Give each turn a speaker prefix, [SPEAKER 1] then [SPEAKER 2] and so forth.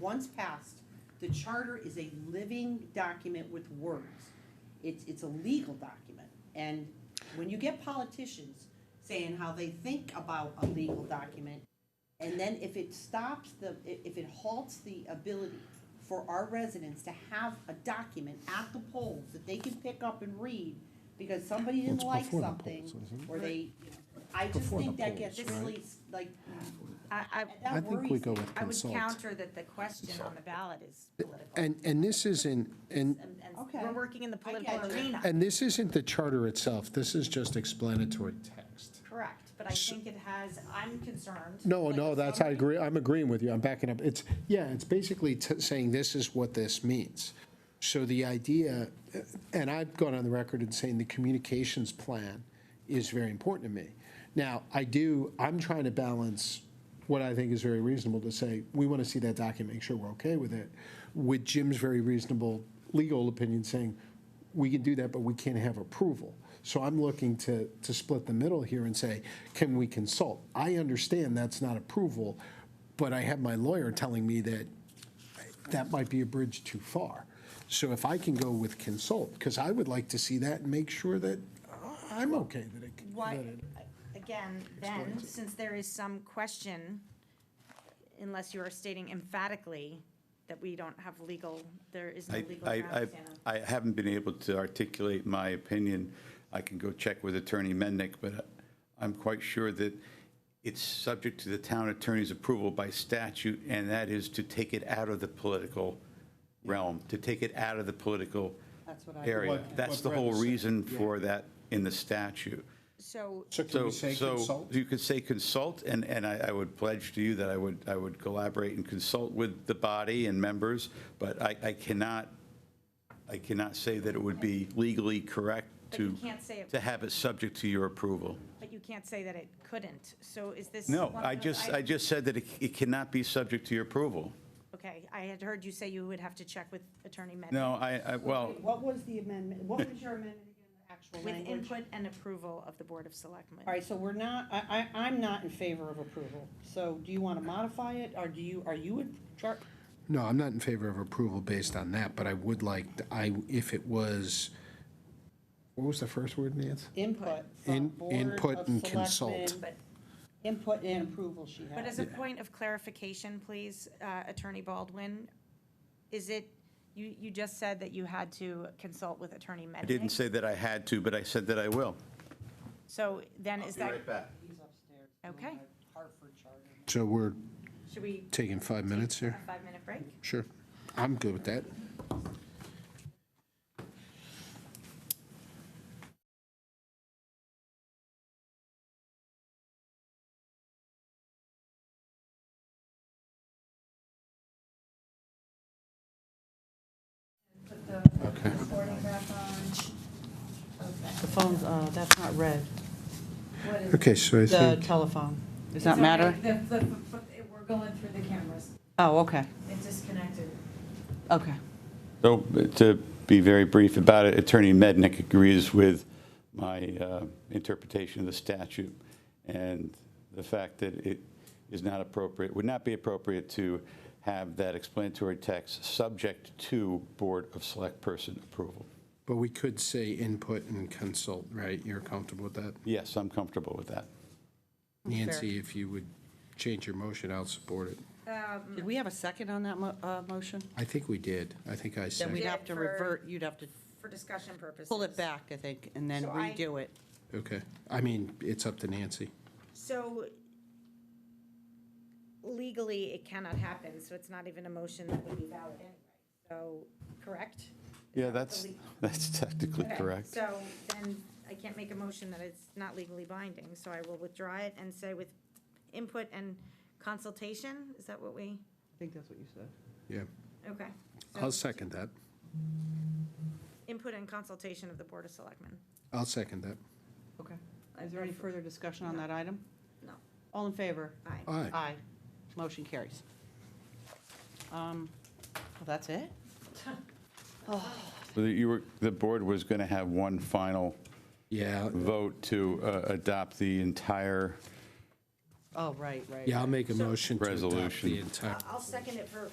[SPEAKER 1] once passed, the charter is a living document with words. It's, it's a legal document. And when you get politicians saying how they think about a legal document, and then if it stops the, i- if it halts the ability for our residents to have a document at the polls that they can pick up and read because somebody didn't
[SPEAKER 2] It's
[SPEAKER 1] like
[SPEAKER 2] before the
[SPEAKER 1] something,
[SPEAKER 2] polls, isn't it?
[SPEAKER 1] or they, I just
[SPEAKER 2] Before the
[SPEAKER 1] think that gets
[SPEAKER 2] polls, right?
[SPEAKER 1] really, s- like,
[SPEAKER 3] I, I,
[SPEAKER 1] that
[SPEAKER 2] I think we
[SPEAKER 1] worries
[SPEAKER 2] go
[SPEAKER 1] me.
[SPEAKER 2] with
[SPEAKER 3] I would
[SPEAKER 2] consult.
[SPEAKER 3] counter that the question on the ballot is political.
[SPEAKER 2] And, and this isn't, and,
[SPEAKER 3] And- and
[SPEAKER 1] Okay.
[SPEAKER 3] We're working in the
[SPEAKER 1] I get
[SPEAKER 3] political
[SPEAKER 1] you.
[SPEAKER 3] arena.
[SPEAKER 2] and this isn't the charter itself, this is just explanatory text.
[SPEAKER 3] Correct, but I think it has, I'm concerned.
[SPEAKER 2] No,
[SPEAKER 3] like,
[SPEAKER 2] no,
[SPEAKER 3] if
[SPEAKER 2] that's, I
[SPEAKER 3] somebody-
[SPEAKER 2] agree, I'm agreeing with you, I'm backing up. It's, yeah, it's basically t- saying this is what this means. So the idea, uh, and I've gone on the record and saying the communications plan is very important to me. Now, I do, I'm trying to balance what I think is very reasonable to say, we want to see that document, make sure we're okay with it, with Jim's very reasonable legal opinion saying, we can do that, but we can't have approval. So I'm looking to, to split the middle here and say, can we consult? I understand that's not approval, but I have my lawyer telling me that that might be a bridge too far. So if I can go with consult, because I would like to see that and make sure that I'm okay that it.
[SPEAKER 3] Why,
[SPEAKER 2] that it-
[SPEAKER 3] uh, again, then, since there is some question, unless you are stating emphatically that we don't have legal, there is no
[SPEAKER 4] I,
[SPEAKER 3] legal
[SPEAKER 4] I,
[SPEAKER 3] grounds.
[SPEAKER 4] I-
[SPEAKER 3] Anna.
[SPEAKER 4] I haven't been able to articulate my opinion. I can go check with Attorney Mendick, but I'm quite sure that it's subject to the town attorney's approval by statute, and that is to take it out of the political realm, to take it out of the political
[SPEAKER 1] That's what I-
[SPEAKER 4] area.
[SPEAKER 2] What- what
[SPEAKER 4] That's the whole
[SPEAKER 2] Brett said,
[SPEAKER 4] reason for that in the statute.
[SPEAKER 3] So,
[SPEAKER 2] So can
[SPEAKER 4] So,
[SPEAKER 2] we say
[SPEAKER 4] so
[SPEAKER 2] consult?
[SPEAKER 4] you could say consult, and, and I, I would pledge to you that I would, I would collaborate and consult with the body and members, but I, I cannot, I cannot say that it would be legally correct
[SPEAKER 3] But you
[SPEAKER 4] to,
[SPEAKER 3] can't say it-
[SPEAKER 4] to have it subject to your approval.
[SPEAKER 3] but you can't say that it couldn't, so is this?
[SPEAKER 4] No,
[SPEAKER 3] one
[SPEAKER 4] I
[SPEAKER 3] of those
[SPEAKER 4] just, I
[SPEAKER 3] items-
[SPEAKER 4] just said that it, it cannot be subject to your approval.
[SPEAKER 3] Okay, I had heard you say you would have to check with Attorney Mendick.
[SPEAKER 4] No, I, I, well,
[SPEAKER 1] what was the amendment, what was your amendment again, the actual
[SPEAKER 3] With
[SPEAKER 1] language?
[SPEAKER 3] input and approval of the Board of Selectmen.
[SPEAKER 1] All right, so we're not, I, I, I'm not in favor of approval. So do you want to modify it, or do you, are you in char?
[SPEAKER 2] No, I'm not in favor of approval based on that, but I would like, I, if it was, what was the first word, Nance?
[SPEAKER 1] Input from
[SPEAKER 2] In-
[SPEAKER 1] Board
[SPEAKER 2] input
[SPEAKER 1] of
[SPEAKER 2] and consult.
[SPEAKER 1] Selectmen,
[SPEAKER 3] But,
[SPEAKER 1] Input and approval she
[SPEAKER 3] but
[SPEAKER 1] had.
[SPEAKER 3] as a point of clarification, please, uh, Attorney Baldwin, is it, you, you just said that you had to consult with Attorney Mendick?
[SPEAKER 4] I didn't say that I had to, but I said that I will.
[SPEAKER 3] So then is that,
[SPEAKER 4] back.
[SPEAKER 1] He's upstairs doing
[SPEAKER 3] Okay.
[SPEAKER 1] the Hartford Charter.
[SPEAKER 2] So we're
[SPEAKER 3] should we
[SPEAKER 2] taking five minutes
[SPEAKER 3] a
[SPEAKER 2] here?
[SPEAKER 3] five-minute break?
[SPEAKER 2] Sure. I'm good with that.
[SPEAKER 1] The phone's, uh, that's not red,
[SPEAKER 2] Okay, so I
[SPEAKER 1] the
[SPEAKER 2] think,
[SPEAKER 1] telephone. Does that matter?
[SPEAKER 5] The, the, the- we're going through the cameras.
[SPEAKER 1] Oh, okay,
[SPEAKER 5] It disconnected.
[SPEAKER 1] okay.
[SPEAKER 4] So to be very brief about it, Attorney Mednick agrees with my uh, interpretation of the statute and the fact that it is not appropriate, would not be appropriate to have that explanatory text subject to Board of Select Person approval.
[SPEAKER 2] but we could say input and consult, right? You're comfortable with that?
[SPEAKER 4] Yes, I'm comfortable with that.
[SPEAKER 2] Nancy, if you would change your motion, I'll support it.
[SPEAKER 1] Did we have a second on that mo- uh, motion?
[SPEAKER 2] I think we did. I think I
[SPEAKER 1] Then we'd
[SPEAKER 2] said,
[SPEAKER 3] did
[SPEAKER 1] have
[SPEAKER 3] it
[SPEAKER 1] to
[SPEAKER 3] for-
[SPEAKER 1] revert, you'd have to
[SPEAKER 3] For discussion purposes.
[SPEAKER 1] pull it back, I think, and then
[SPEAKER 3] So I-
[SPEAKER 1] redo it.
[SPEAKER 2] okay. I mean, it's up to Nancy.
[SPEAKER 3] So legally, it cannot happen, so it's not even a motion that would be valid anyway. So, correct?
[SPEAKER 4] Yeah, that's, that's technically
[SPEAKER 3] Okay,
[SPEAKER 4] correct.
[SPEAKER 3] So then I can't make a motion that it's not legally binding, so I will withdraw it and say with input and consultation, is that what we,
[SPEAKER 1] I think that's what you said.
[SPEAKER 2] Yeah.
[SPEAKER 3] okay. So
[SPEAKER 2] I'll second that.
[SPEAKER 3] Input and consultation of the Board of Selectmen.
[SPEAKER 2] I'll second that.
[SPEAKER 1] Okay. Is there any further discussion on that item?
[SPEAKER 3] No.
[SPEAKER 1] All in favor?
[SPEAKER 3] Aye.
[SPEAKER 2] Aye.
[SPEAKER 1] Aye. Motion carries. Um, well, that's it?
[SPEAKER 4] You were, the board was going to have one final
[SPEAKER 2] Yeah,
[SPEAKER 4] vote to uh, adopt the entire
[SPEAKER 1] Oh, right, right.
[SPEAKER 2] yeah, I'll make a motion to adopt
[SPEAKER 4] Resolution.
[SPEAKER 2] the entire.
[SPEAKER 3] I'll second it for